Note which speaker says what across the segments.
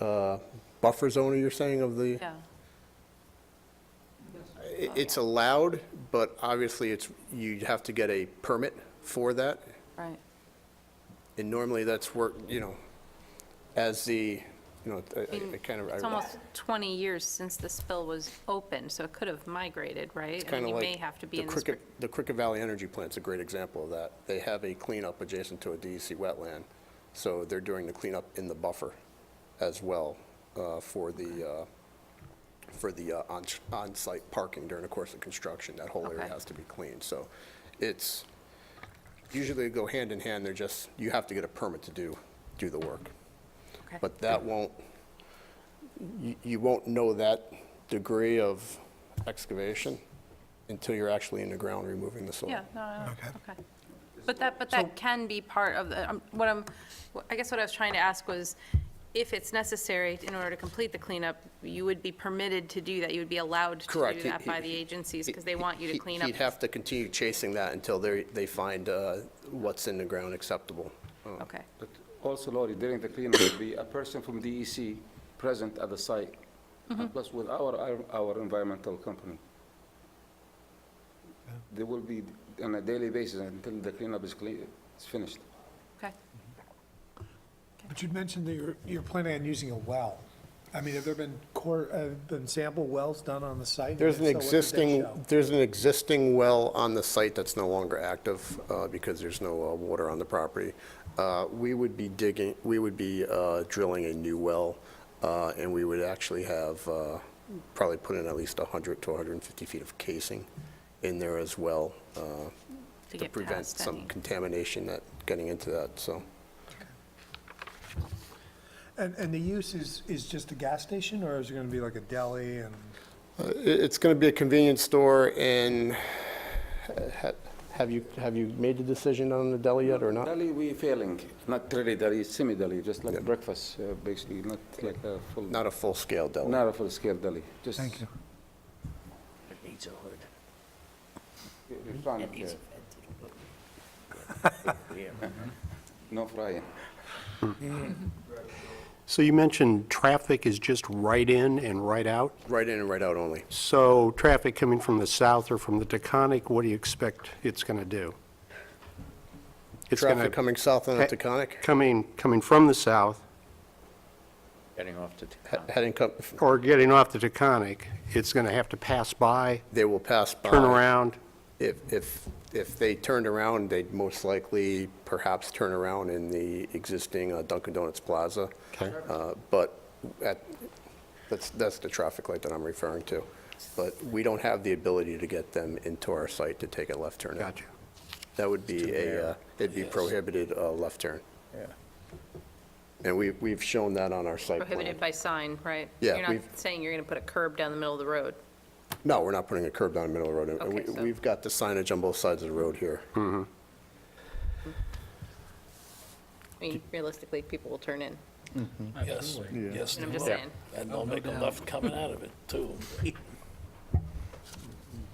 Speaker 1: uh, buffer zone, you're saying, of the?
Speaker 2: Yeah.
Speaker 1: I- It's allowed, but obviously it's, you'd have to get a permit for that.
Speaker 2: Right.
Speaker 1: And normally that's work, you know, as the, you know, I- I I kind of.
Speaker 2: It's
Speaker 1: I-
Speaker 2: almost 20 years since the spill was open, so it could have migrated, right?
Speaker 1: It's kind of like.
Speaker 2: And you may have to be
Speaker 1: the
Speaker 2: in this
Speaker 1: Cricket- The Cricket Valley Energy Plant's a great example of that. They have a cleanup adjacent to a DEC wetland, so they're doing the cleanup in the buffer as well uh, for the, uh, for the uh, on- on-site parking during the course of construction. That whole area
Speaker 2: Okay.
Speaker 1: has to be cleaned. So it's, usually they go hand in hand, they're just, you have to get a permit to do, do the work.
Speaker 2: Okay.
Speaker 1: But that won't, you- you won't know that degree of excavation until you're actually in the ground removing the soil.
Speaker 2: Yeah, no, I
Speaker 3: Okay.
Speaker 2: don't- okay. But that, but that can be part of the, um, what I'm, wh- I guess what I was trying to ask was, if it's necessary in order to complete the cleanup, you would be permitted to do that, you would be allowed to
Speaker 1: Correct.
Speaker 2: do
Speaker 1: He-
Speaker 2: that by
Speaker 1: he-
Speaker 2: the agencies, because they
Speaker 1: He-
Speaker 2: want you to
Speaker 1: he-
Speaker 2: clean up.
Speaker 1: He'd have to continue chasing that until they, they find uh, what's in the ground acceptable. Uh,
Speaker 2: Okay,
Speaker 4: But also, Lori, during the cleanup, there'll be a person from DEC present at the site, and plus with our, our- our environmental company. They will be on a daily basis until the cleanup is clean, is finished.
Speaker 2: okay.
Speaker 3: But you'd mentioned that you're, you're planning on using a well. I mean, have there been core, have been sample wells done on the site?
Speaker 1: There's an
Speaker 3: And if so, what did they
Speaker 1: existing,
Speaker 3: show?
Speaker 1: there's an existing well on the site that's no longer active uh, because there's no uh, water on the property. Uh, We would be digging, we would be uh, drilling a new well, uh, and we would actually have, uh, probably put in at least 100 to 150 feet of casing in there as well uh,
Speaker 2: To
Speaker 1: to
Speaker 2: get
Speaker 1: prevent
Speaker 2: past
Speaker 1: some
Speaker 2: any.
Speaker 1: contamination that, getting into that, so.
Speaker 3: And, and the use is, is just a gas station, or is it gonna be like a deli and?
Speaker 1: Uh, it- It's going to be a convenience store, and ha- have you, have you made the decision on the deli yet or not?
Speaker 4: Deli, we failing, not really deli, semi-deli, just
Speaker 1: Yeah.
Speaker 4: like breakfast, uh, basically, not like a full,
Speaker 1: Not a full-scale deli.
Speaker 4: not a full-scale deli, just.
Speaker 3: Thank you.
Speaker 4: Refrigerated, uh, No frying.
Speaker 5: So you mentioned traffic is just right in and right out.
Speaker 1: Right in and right out only.
Speaker 5: So traffic coming from the south or from the Taconic, what do you expect it's going to do? It's gonna-
Speaker 1: Traffic coming south on the Taconic,
Speaker 5: Coming, coming from the south
Speaker 6: Getting off to
Speaker 1: he-
Speaker 6: Taconic.
Speaker 1: heading, co-
Speaker 5: or getting off the Taconic, it's going to have to pass by,
Speaker 1: they will pass by.
Speaker 5: turn around.
Speaker 1: If, if, if they turned around, they'd most likely perhaps turn around in the existing uh, Dunkin' Donuts Plaza.
Speaker 5: Okay.
Speaker 1: Uh, But at, that's, that's the traffic light that I'm referring to. But we don't have the ability to get them into our site to take a left turn.
Speaker 5: Gotcha.
Speaker 1: That would be a, uh, it'd be prohibited uh, left turn.
Speaker 6: Yeah.
Speaker 1: And we, we've shown that on our site plan.
Speaker 2: Prohibited by sign, right?
Speaker 1: um, Yeah,
Speaker 2: You're not
Speaker 1: we've-
Speaker 2: saying you're going to put a curb down the middle of the road.
Speaker 1: No, we're not putting a curb down the middle of the road. And
Speaker 2: Okay,
Speaker 1: we-
Speaker 2: so- Hmm.
Speaker 1: We've got the signage on both sides of the road here.
Speaker 2: I mean, realistically, people will turn in,
Speaker 7: Yes, yes,
Speaker 2: and
Speaker 7: they
Speaker 2: I'm just
Speaker 7: will.
Speaker 2: saying.
Speaker 7: And they'll make a left coming out of it, too.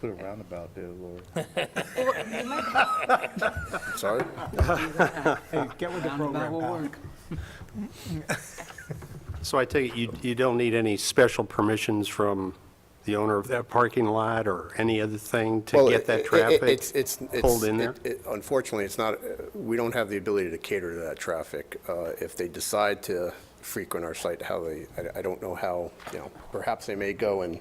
Speaker 8: Put a roundabout there, Lord.
Speaker 1: Sorry?
Speaker 3: Get with the program, pal.
Speaker 5: So I take it you, you don't need any special permissions from the owner of that parking lot or any other thing to
Speaker 1: Well,
Speaker 5: get
Speaker 1: it-
Speaker 5: that
Speaker 1: it-
Speaker 5: traffic
Speaker 1: it's- it's- it's-
Speaker 5: pulled in there?
Speaker 1: it- it- Unfortunately, it's not, uh, we don't have the ability to cater to that traffic. Uh, If they decide to frequent our site, how they, I- I don't know how, you know, perhaps they may go and,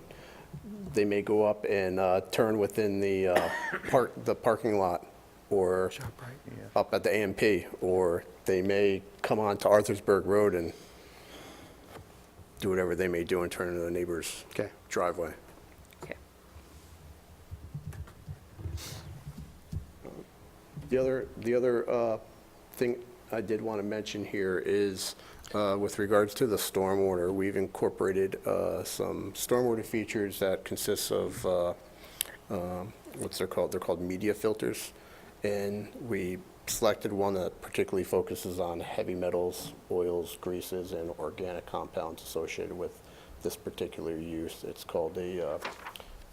Speaker 1: they may go up and uh, turn within the uh, park, the parking lot, or up at the AMP, or they may come onto Arthur'sburg Road and do whatever they may do and turn into the neighbor's
Speaker 5: Okay.
Speaker 1: driveway.
Speaker 2: Okay.
Speaker 1: The other, the other uh, thing I did want to mention here is uh, with regards to the stormwater, we've incorporated uh, some stormwater features that consists of, uh, um, what's they're called, they're called media filters. And we selected one that particularly focuses on heavy metals, oils, greases, and organic compounds associated with this particular use. It's called a uh,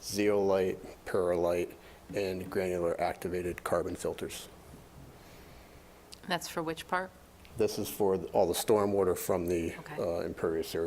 Speaker 1: zeolite, perlite, and granular activated carbon filters.
Speaker 2: That's for which part?
Speaker 1: This is for all the stormwater from the
Speaker 2: Okay.
Speaker 1: uh, impervious area